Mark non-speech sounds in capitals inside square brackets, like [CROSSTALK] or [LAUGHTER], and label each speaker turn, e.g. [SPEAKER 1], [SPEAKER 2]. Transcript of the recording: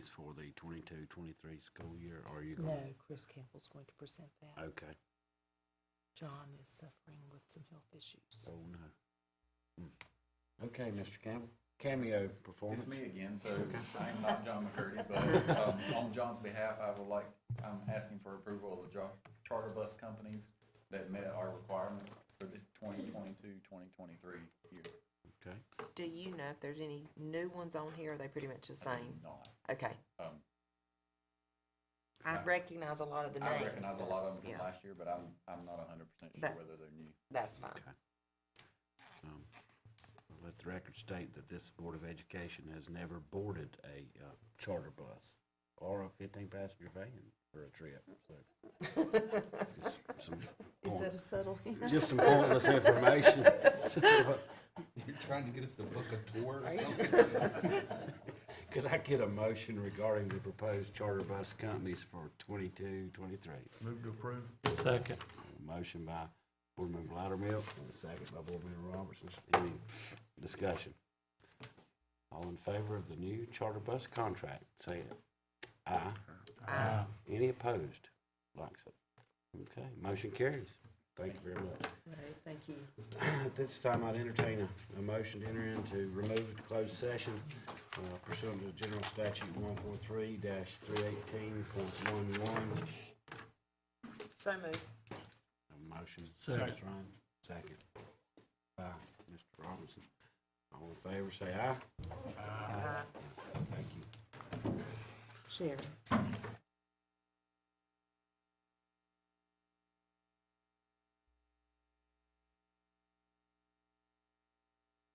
[SPEAKER 1] for the 22-23 school year, or are you
[SPEAKER 2] No,
[SPEAKER 1] going?
[SPEAKER 2] Chris Campbell's going to present that.
[SPEAKER 1] Okay,
[SPEAKER 2] John is suffering with some health issues.
[SPEAKER 1] oh, no. Hmm. Okay, Mr. Campbell, cameo performance.
[SPEAKER 3] It's me again, so I'm not John McCurdy, but um, on John's behalf, I would like, I'm asking for approval of the jo- charter bus companies that met our requirement for the 2022, 2023 year.
[SPEAKER 1] Okay,
[SPEAKER 4] Do you know if there's any new ones on here? Or are they pretty much the
[SPEAKER 3] I did
[SPEAKER 4] same?
[SPEAKER 3] Not.
[SPEAKER 4] Okay.
[SPEAKER 3] Um,
[SPEAKER 4] I
[SPEAKER 3] I-
[SPEAKER 4] recognize a lot of the names.
[SPEAKER 3] I recognize a
[SPEAKER 4] but-
[SPEAKER 3] lot of them from
[SPEAKER 4] yeah,
[SPEAKER 3] last year, but I'm, I'm not 100% sure
[SPEAKER 4] That-
[SPEAKER 3] whether they're new. [LAUGHS]
[SPEAKER 4] That's fine.
[SPEAKER 1] um, let the record state that this Board of Education has never boarded a, uh, charter bus or a fifteen passenger van for a trip, so.
[SPEAKER 2] [LAUGHS]
[SPEAKER 1] just some
[SPEAKER 2] Is
[SPEAKER 1] point-
[SPEAKER 2] that a subtle hint?
[SPEAKER 1] Just some pointless information. So,
[SPEAKER 5] You're trying to get us to book a tour or something?
[SPEAKER 1] [LAUGHS] Could I get a motion regarding the proposed charter bus companies for 22, 23?
[SPEAKER 5] Move to approve.
[SPEAKER 1] Motion by Board Member Loudermilk, and a second by Board Member Robertson. Any discussion? All in favor of the new charter bus contract, say it. Aye.
[SPEAKER 4] Uh,
[SPEAKER 1] Any opposed? Like so. Okay, motion carries. Thank you very much.
[SPEAKER 2] Right, Thank you.
[SPEAKER 1] At this time, I'd entertain a, a motion to enter into removed closed session uh, pursuant to General Statute one four three three eighteen point one one.
[SPEAKER 4] so moved.
[SPEAKER 1] motion. Second. Second. By Mr. Robinson. All in favor, say aye.
[SPEAKER 4] Uh,
[SPEAKER 1] Thank you.
[SPEAKER 2] Sharon.